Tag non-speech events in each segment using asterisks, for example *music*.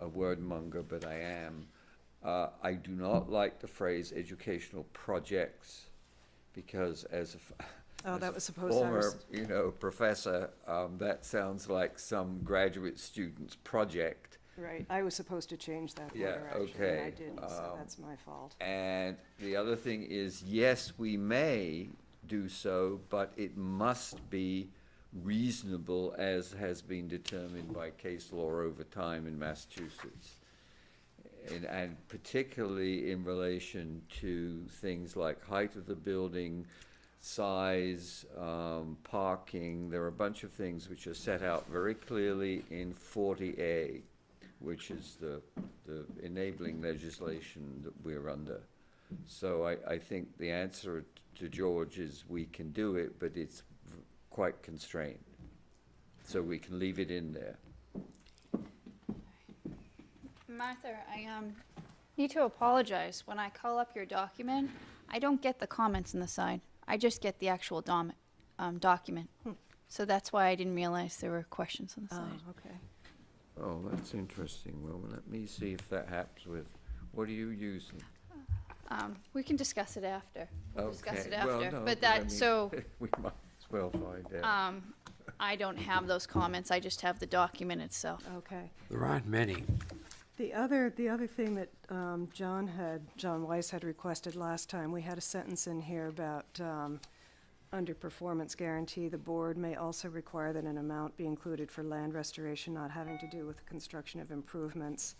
a word monger, but I am. Uh, I do not like the phrase educational projects because as a. f- Oh, as that a was supposed to- I former, was- You know, professor, um, that sounds like some graduate student's project. Right, I was supposed to change that Yeah, order, actually, and I okay, didn't, so um, that's my fault. And the other thing is, yes, we may do so, but it must be reasonable as has been determined by case law over time in Massachusetts. And, and particularly in relation to things like height of the building, size, um, parking, there are a bunch of things which are set out very clearly in forty A, which is the, the enabling legislation that we're under. So I, I think the answer to George is we can do it, but it's v- quite constrained. So we can leave it in there. Martha, I um, need to apologize. When I call up your document, I don't get the comments on the side. I just get the actual dom- um, document. So that's why I didn't realize there were questions on the Oh, side. okay. Oh, that's interesting. Well, let me see if that happens with, what are you using? Um, we can discuss it after. We'll discuss Okay, it well, after. no, but I that, mean, *laughs* so We might as well find out. um, I don't have those comments. I just have the document itself. Okay. There aren't many. The other, the other thing that um, John had, John Weiss had requested last time, we had a sentence in here about, um, under performance guarantee, the board may also require that an amount be included for land restoration not having to do with the construction of improvements.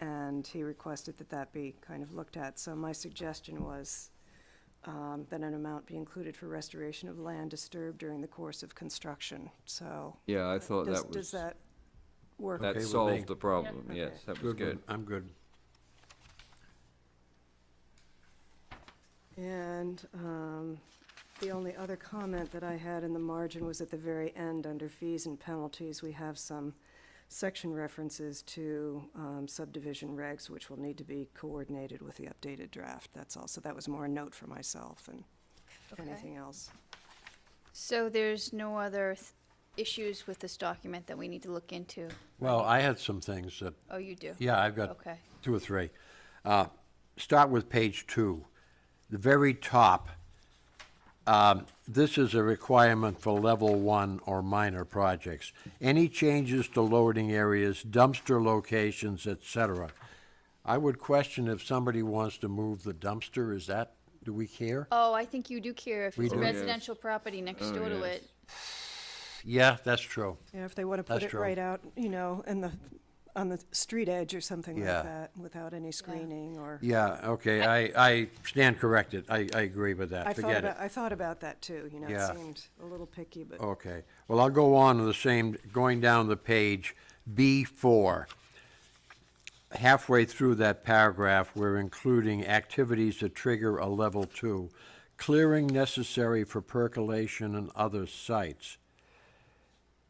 And he requested that that be kind of looked at. So my suggestion was um, that an amount be included for restoration of land disturbed during the course of construction. So Yeah, I thought does, that does was, that work? Okay that with me. solved the problem. Yeah. Yes, Okay. that was good. I'm good. And um, the only other comment that I had in the margin was at the very end, under fees and penalties, we have some section references to um, subdivision regs, which will need to be coordinated with the updated draft, that's all. So that was more a note for myself than anything else. So there's no other th- issues with this document that we need to look into. Well, I had some things that, Oh, you do? yeah, I've got Okay. two or three. Uh, Start with page two, the very top. um, This is a requirement for level one or minor projects. Any changes to loading areas, dumpster locations, et cetera. I would question if somebody wants to move the dumpster, is that, do we care? Oh, I think you do care if We it's a do. Oh, yes. residential property next Oh, door to yes. it. Yeah, that's true. Yeah, if they want to put That's it true. right out, you know, in the, on the street edge or something like Yeah. that, without any screening or. Yeah, okay, I, I stand corrected. I, I agree with that, I thought forget it. about, I thought about that too, you know, Yeah. it seemed a little picky, but. Okay, well, I'll go on to the same, going down the page, B4. Halfway through that paragraph, we're including activities that trigger a level two, clearing necessary for percolation and other sites.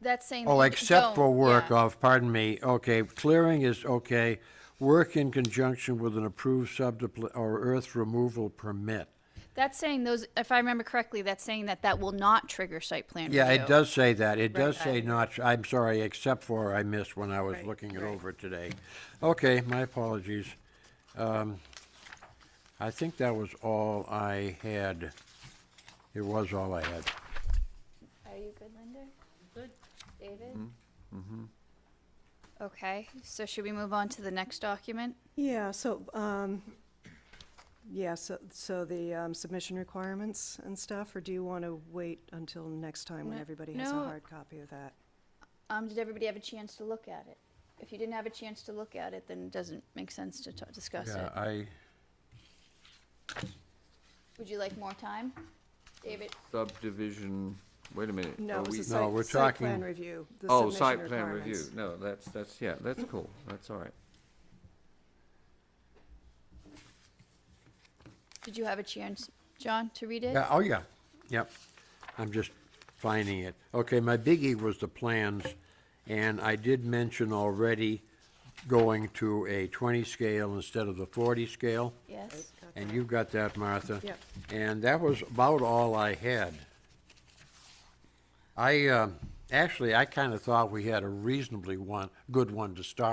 That's saying. Oh, that you except don't- for work yeah. of, pardon me, okay, clearing is okay, work in conjunction with an approved subdepl- or earth removal permit. That's saying those, if I remember correctly, that's saying that that will not trigger site plan Yeah, review. it does say that. It does Right. say not, I'm sorry, except for I missed when I was Right, looking it right. over today. Okay, my apologies. Um, I think that was all I had. It was all I had. Are you good, Linda? Good. David? Mm-hmm. Okay, so should we move on to the next document? Yeah, so, um, yeah, so, so the um, submission requirements and stuff, or do you want to wait until next time when No- everybody has a no. hard copy of that? Um, did everybody have a chance to look at it? If you didn't have a chance to look at it, then it doesn't make sense to t- discuss Yeah, it. I, Would you like more time? David, Subdivision, wait a minute. No, are it was we- a No, site, we're site plan talking- review, the Oh, submission site plan requirements. review. No, that's, that's, yeah, that's cool. That's all right. did you have a chance, John, to read it? yeah, oh, yeah, yep. I'm just finding it. Okay, my biggie was the plans, and I did mention already going to a 20 scale instead of the 40 scale. Yes? And you got that, Martha? Yep. And that was about all I had. I, um, actually, I kind of thought we had a reasonably one, good one to start